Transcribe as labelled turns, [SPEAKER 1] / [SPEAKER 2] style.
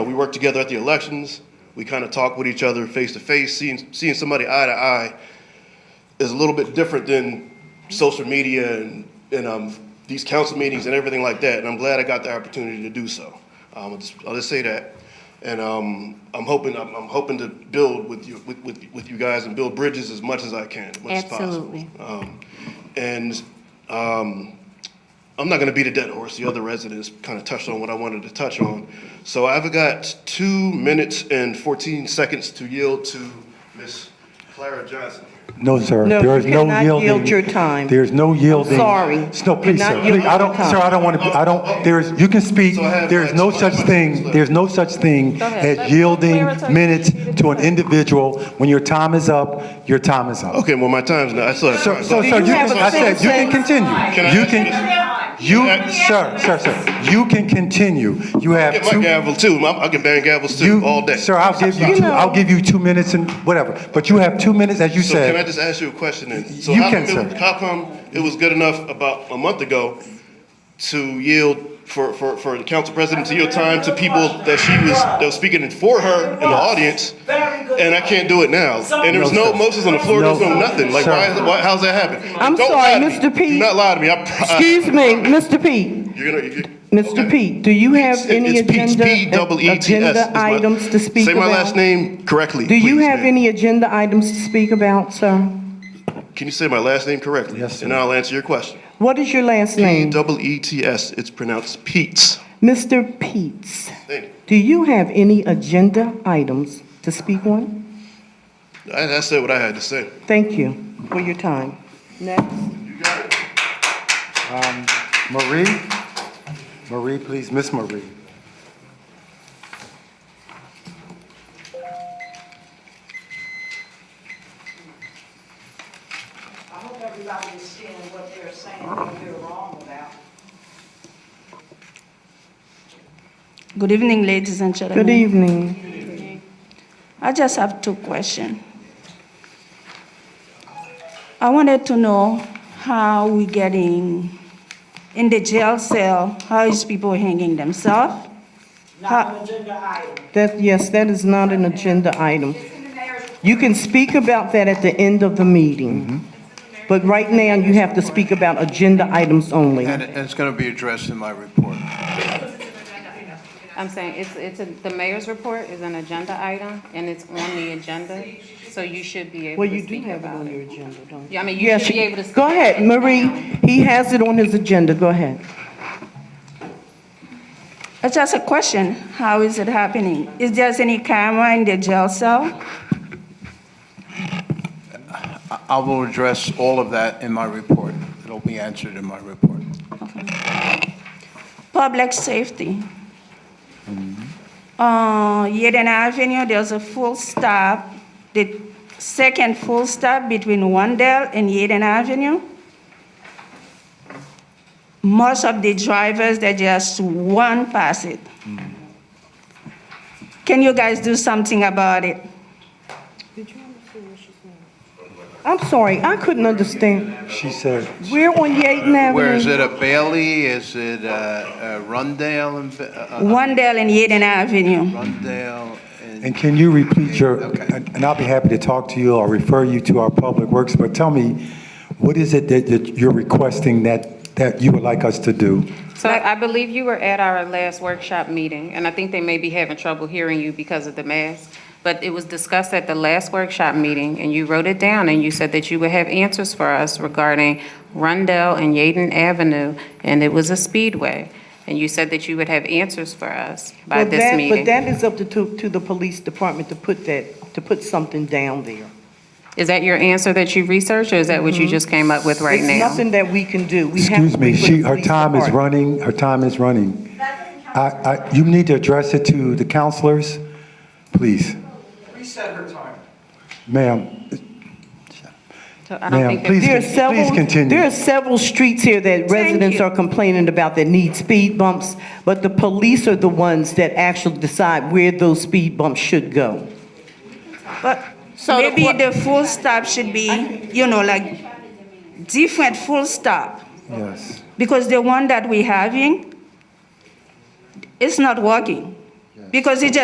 [SPEAKER 1] we work together at the elections. We kind of talk with each other face to face. Seeing, seeing somebody eye to eye is a little bit different than social media and, and um, these council meetings and everything like that. And I'm glad I got the opportunity to do so. Um, I'll, just, I'll just say that. And um, I'm hoping I'm, I'm hoping to build with you with, with, with you guys and build bridges as much as I can, as much
[SPEAKER 2] Absolutely.
[SPEAKER 1] as possible. Um, and um, I'm not going to beat a dead horse. The other residents kind of touched on what I wanted to touch on. So I've got two minutes and 14 seconds to yield to Miss Clara Johnson.
[SPEAKER 3] No, sir.
[SPEAKER 4] No,
[SPEAKER 3] There is
[SPEAKER 4] you
[SPEAKER 3] no
[SPEAKER 4] cannot yield
[SPEAKER 3] yielding.
[SPEAKER 4] your time.
[SPEAKER 3] There's no yielding.
[SPEAKER 4] sorry.
[SPEAKER 3] No,
[SPEAKER 4] You
[SPEAKER 3] please,
[SPEAKER 4] cannot
[SPEAKER 3] sir.
[SPEAKER 4] yield
[SPEAKER 3] Please, I
[SPEAKER 4] your
[SPEAKER 3] don't,
[SPEAKER 4] time.
[SPEAKER 3] sir, I don't want to, I don't, there is, you can speak.
[SPEAKER 1] So I have,
[SPEAKER 3] There is
[SPEAKER 1] like,
[SPEAKER 3] no
[SPEAKER 1] 20
[SPEAKER 3] such
[SPEAKER 1] seconds
[SPEAKER 3] thing,
[SPEAKER 1] left.
[SPEAKER 3] there's no such thing
[SPEAKER 5] Go ahead. Let-
[SPEAKER 3] as
[SPEAKER 5] let
[SPEAKER 3] yielding
[SPEAKER 5] Clara take-
[SPEAKER 3] minutes to an individual. When your time is up, your time is up.
[SPEAKER 1] Okay, well, my time's now. I still have
[SPEAKER 3] So,
[SPEAKER 1] time.
[SPEAKER 3] so,
[SPEAKER 4] Do
[SPEAKER 3] sir,
[SPEAKER 4] you
[SPEAKER 3] you
[SPEAKER 4] have
[SPEAKER 3] can,
[SPEAKER 4] a
[SPEAKER 3] I said, you can
[SPEAKER 4] sentence?
[SPEAKER 3] continue.
[SPEAKER 1] Can I
[SPEAKER 3] You
[SPEAKER 1] ask
[SPEAKER 3] can, you, sir, sir, sir, you can continue. You have
[SPEAKER 1] Get my
[SPEAKER 3] two.
[SPEAKER 1] gavel too. My- I can bang gavels too
[SPEAKER 3] You,
[SPEAKER 1] all day.
[SPEAKER 3] Sir, I'll give you, two- I'll give you two minutes and whatever, but you have two minutes, as you
[SPEAKER 1] So can I
[SPEAKER 3] said.
[SPEAKER 1] just ask you a question then? So
[SPEAKER 3] You
[SPEAKER 1] how
[SPEAKER 3] can,
[SPEAKER 1] come it-
[SPEAKER 3] sir.
[SPEAKER 1] How come it was good enough about a month ago to yield for, for, for the council president to yield time to people that she was, that was speaking for her in the audience? And I can't do it now. And there was no
[SPEAKER 3] sir.
[SPEAKER 1] motions on the floor, there was no
[SPEAKER 3] No,
[SPEAKER 1] nothing. Like,
[SPEAKER 3] sir.
[SPEAKER 1] why, is it- why, how's that happen?
[SPEAKER 4] I'm
[SPEAKER 1] Don't lie
[SPEAKER 4] sorry,
[SPEAKER 1] to me.
[SPEAKER 4] Mr. Pete.
[SPEAKER 1] Do not lie to me. I, pro- I-
[SPEAKER 4] Excuse me, Mr. Pete.
[SPEAKER 1] You're gonna, you
[SPEAKER 4] Mr. Pete, do you have any agenda,
[SPEAKER 1] E
[SPEAKER 4] agenda items to speak
[SPEAKER 1] Say
[SPEAKER 4] about?
[SPEAKER 1] my last name correctly,
[SPEAKER 4] Do you
[SPEAKER 1] please,
[SPEAKER 4] have
[SPEAKER 1] ma'am.
[SPEAKER 4] any agenda items to speak about, sir?
[SPEAKER 1] Can you say my last name correctly?
[SPEAKER 3] Yes, sir.
[SPEAKER 1] And I'll answer your question.
[SPEAKER 4] What is your last name?
[SPEAKER 1] E Double E-T-S, it's pronounced Pete's.
[SPEAKER 4] Mr. Peets,
[SPEAKER 1] Thank you.
[SPEAKER 4] do you have any agenda items to speak on?
[SPEAKER 1] I, I said what I had to say.
[SPEAKER 4] Thank you for your time. Next.
[SPEAKER 3] Marie, Marie, please, Miss Marie.
[SPEAKER 6] I hope everybody is seeing what they're saying, what they're wrong about.
[SPEAKER 5] Good evening, ladies and
[SPEAKER 4] Good
[SPEAKER 5] gentlemen.
[SPEAKER 4] evening.
[SPEAKER 5] I just have two questions. I wanted to know how we getting in the jail cell, how is people hanging themselves?
[SPEAKER 6] Not an agenda item.
[SPEAKER 4] That, yes, that is not an agenda item. You can speak about that at the end of the meeting. But right now, you have to speak about agenda items only.
[SPEAKER 7] And and it's going to be addressed in my report.
[SPEAKER 8] I'm saying, it's, it's, a- the mayor's report is an agenda item, and it's on the agenda, so you should be able
[SPEAKER 4] Well, you do
[SPEAKER 8] to speak
[SPEAKER 4] have it
[SPEAKER 8] about
[SPEAKER 4] on
[SPEAKER 8] it.
[SPEAKER 4] your agenda, don't you?
[SPEAKER 8] Yeah, I mean, you
[SPEAKER 4] Yes,
[SPEAKER 8] should be able to. speak
[SPEAKER 4] go
[SPEAKER 8] about
[SPEAKER 4] ahead,
[SPEAKER 8] it
[SPEAKER 4] Marie.
[SPEAKER 8] now.
[SPEAKER 4] He has it on his agenda, go ahead.
[SPEAKER 5] It's just a question, how is it happening? Is there any camera in the jail cell?
[SPEAKER 7] I I will address all of that in my report. It'll be answered in my report.
[SPEAKER 5] Public safety. Uh, Yaden Avenue, there's a full stop, the second full stop between Wandale and Yaden Avenue. Most of the drivers, they just one pass it. Can you guys do something about it?
[SPEAKER 4] I'm sorry, I couldn't understand.
[SPEAKER 3] She said,
[SPEAKER 4] We're on Yaden Avenue.
[SPEAKER 7] Where is it, a Bailey? Is it uh, uh, Rundale? and Ba- uh, uh,
[SPEAKER 5] Wandale and Yaden Avenue.
[SPEAKER 7] Rundale?
[SPEAKER 3] and can you repeat your,
[SPEAKER 7] Okay.
[SPEAKER 3] and and I'll be happy to talk to you or refer you to our Public Works, but tell me, what is it that, that you're requesting that, that you would like us to do?
[SPEAKER 8] So I believe you were at our last workshop meeting, and I think they may be having trouble hearing you because of the mask. But it was discussed at the last workshop meeting, and you wrote it down, and you said that you would have answers for us regarding Rundell and Yaden Avenue, and it was a speedway. And you said that you would have answers for us by
[SPEAKER 4] But
[SPEAKER 8] this
[SPEAKER 4] that- But
[SPEAKER 8] meeting.
[SPEAKER 4] that is up to, to to the police department to put that, to put something down there.
[SPEAKER 8] Is that your answer that you researched, or is that what you just came up with right
[SPEAKER 4] It's
[SPEAKER 8] now?
[SPEAKER 4] nothing that we can do. We have to
[SPEAKER 3] Excuse me,
[SPEAKER 4] wait for the
[SPEAKER 3] she, her
[SPEAKER 4] police
[SPEAKER 3] time is
[SPEAKER 4] department.
[SPEAKER 3] running, her time is running. I, I, you need to address it to the counselors, please.
[SPEAKER 7] Reset her time.
[SPEAKER 3] Ma'am,
[SPEAKER 8] So I don't
[SPEAKER 3] ma'am,
[SPEAKER 8] think that-
[SPEAKER 3] please,
[SPEAKER 4] There are
[SPEAKER 3] please
[SPEAKER 4] several,
[SPEAKER 3] continue.
[SPEAKER 4] there are several streets here that residents
[SPEAKER 5] you.
[SPEAKER 4] are complaining about that need speed bumps, but the police are the ones that actually decide where those speed bumps should go.
[SPEAKER 5] But
[SPEAKER 8] the
[SPEAKER 5] maybe
[SPEAKER 8] que-
[SPEAKER 5] the full stop should be, you know, like, different full stop.
[SPEAKER 3] Yes,
[SPEAKER 5] because the one that we having is not working. Because it just